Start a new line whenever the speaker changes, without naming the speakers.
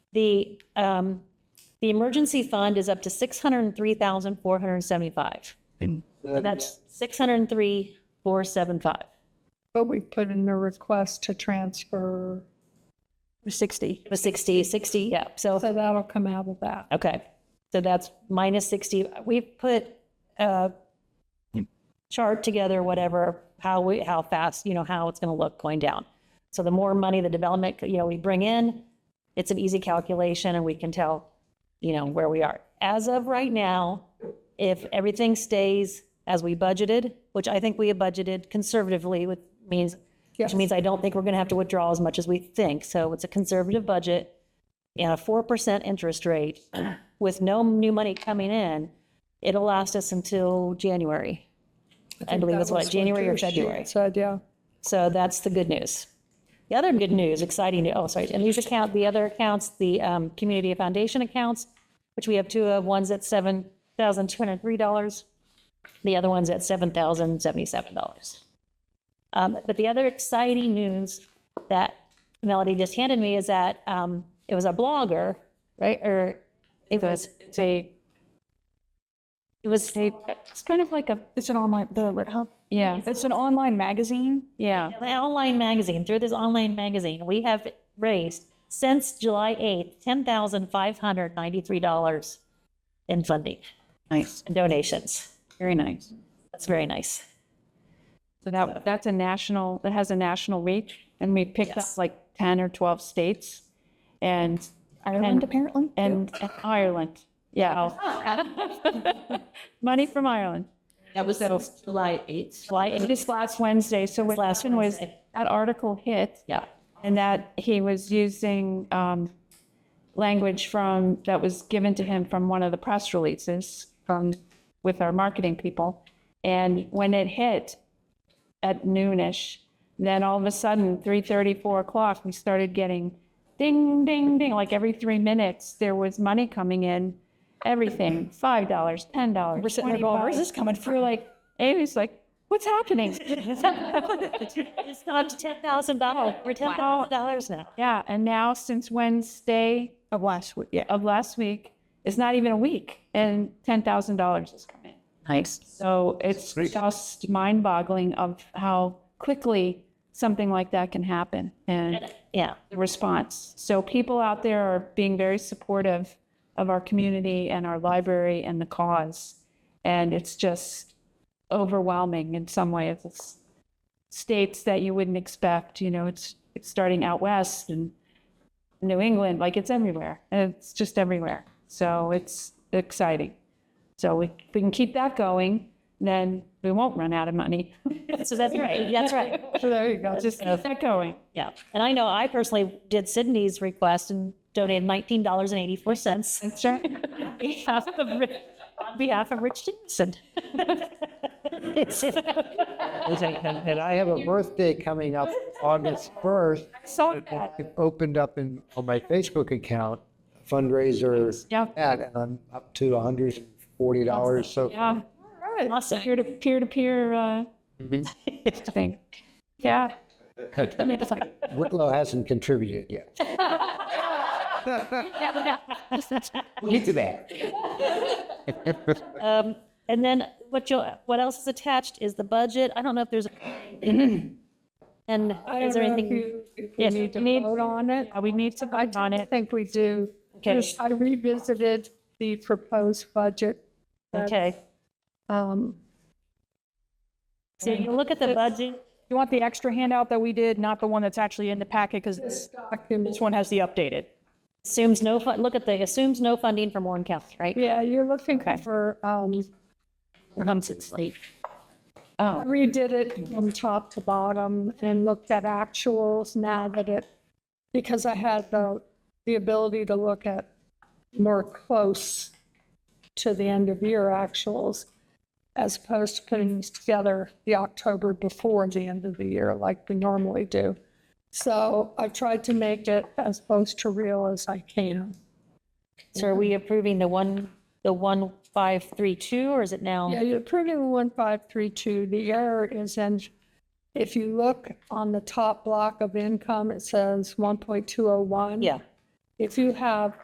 The, um, the emergency fund is up to 603,475. That's 603,475.
But we put in a request to transfer 60.
It was 60, 60, yeah. So,
So that'll come out of that.
okay. So that's minus 60. We've put a chart together, whatever, how we, how fast, you know, how it's going to look going down. So the more money the development, you know, we bring in, it's an easy calculation and we can tell, you know, where we are. As of right now, if everything stays as we budgeted, which I think we have budgeted conservatively, which means, which
Yes.
means I don't think we're going to have to withdraw as much as we think. So it's a conservative budget and a 4% interest rate with no new money coming in. It'll last us until January. I believe that's what, January or February.
So, yeah.
So that's the good news. The other good news, exciting, new- oh, sorry, and these account, the other accounts, the um, community foundation accounts, which we have two of, one's at $7,203. The other one's at $7,077. Um, But the other exciting news that Melody just handed me is that um, it was a blogger, right, or it was,
It's a,
it was,
it's kind of like a, it's an online, the Lit Hub.
yeah,
It's an online magazine. Yeah.
the online magazine, through this online magazine, we have raised since July 8th, $10,593 in funding
Nice.
and donations.
Very nice.
That's very nice.
So that, that's a national, that has a national reach and we picked up
Yes.
like 10 or 12 states and Ireland apparently. And and Ireland. Yeah. Money from Ireland.
That was that was July 8th.
July
It
8th,
is last Wednesday. So what
last
happened was
Wednesday.
that article hit
yeah,
and that he was using um, language from that was given to him from one of the press releases from with our marketing people. And when it hit at noonish, then all of a sudden, 3:30, 4 o'clock, we started getting ding, ding, ding. Like every three minutes, there was money coming in. Everything, five dollars, ten dollars. We're
sitting there going, "Where's this
coming from? We're like, Amy's like, what's happening?
it's gone to $10,000, we're $10,000 now.
Yeah, and now since Wednesday. Of last week, yeah. Of last week, it's not even a week, and ten thousand dollars has come in.
Nice.
So it's
Great.
just mind boggling of how quickly something like that can happen and
Yeah,
the response. So people out there are being very supportive of our community and our library and the cause. And it's just overwhelming in some ways. It's states that you wouldn't expect, you know, it's, it's starting out west and New England, like it's everywhere. And it's just everywhere. So it's exciting. So we, if we can keep that going, then we won't run out of money.
so that's right, that's right,
So there you go.
Just keep that going.
yeah. And I know I personally did Sydney's request and donated $19.84
That's right.
on behalf of Ri- on behalf of Rich Dennison.
And I have a birthday coming up August 1st.
So
I've opened up in, on my Facebook account fundraiser
Yeah.
ad, and I'm up to $140. So
yeah.
Awesome.
peer to peer to peer uh thing. Yeah. I mean, it's like,
Wicklow hasn't contributed yet. We'll get to that.
Um, and then what you, what else is attached is the budget. I don't know if there's. And
I
is
don't
there
know if
anything? Uh,
you- If we
Yes,
need to
we need-
vote on it.
yeah, we need to vote on
I
it.
think we do.
Okay.
Just- I revisited the proposed budget.
Okay.
Um,
So you look at the budget.
You want the extra handout that we did, not the one that's actually in the packet, because this
document-
one has the updated.
Assumes no, fun- look at the, assumes no funding from Warren County, right?
Yeah, you're looking for, um,
Comes in late.
Oh,
redid it from top to bottom and looked at actuals now that it, because I had the, the ability to look at more close to the end of year actuals as opposed to putting these together the October before the end of the year like we normally do. So I tried to make it as close to real as I can.
So are we approving the one, the one five three two or is it
Yeah,
now?
you're approving one five three two. The error is in, if you look on the top block of income, it says one point two oh one.
Yeah.
if you have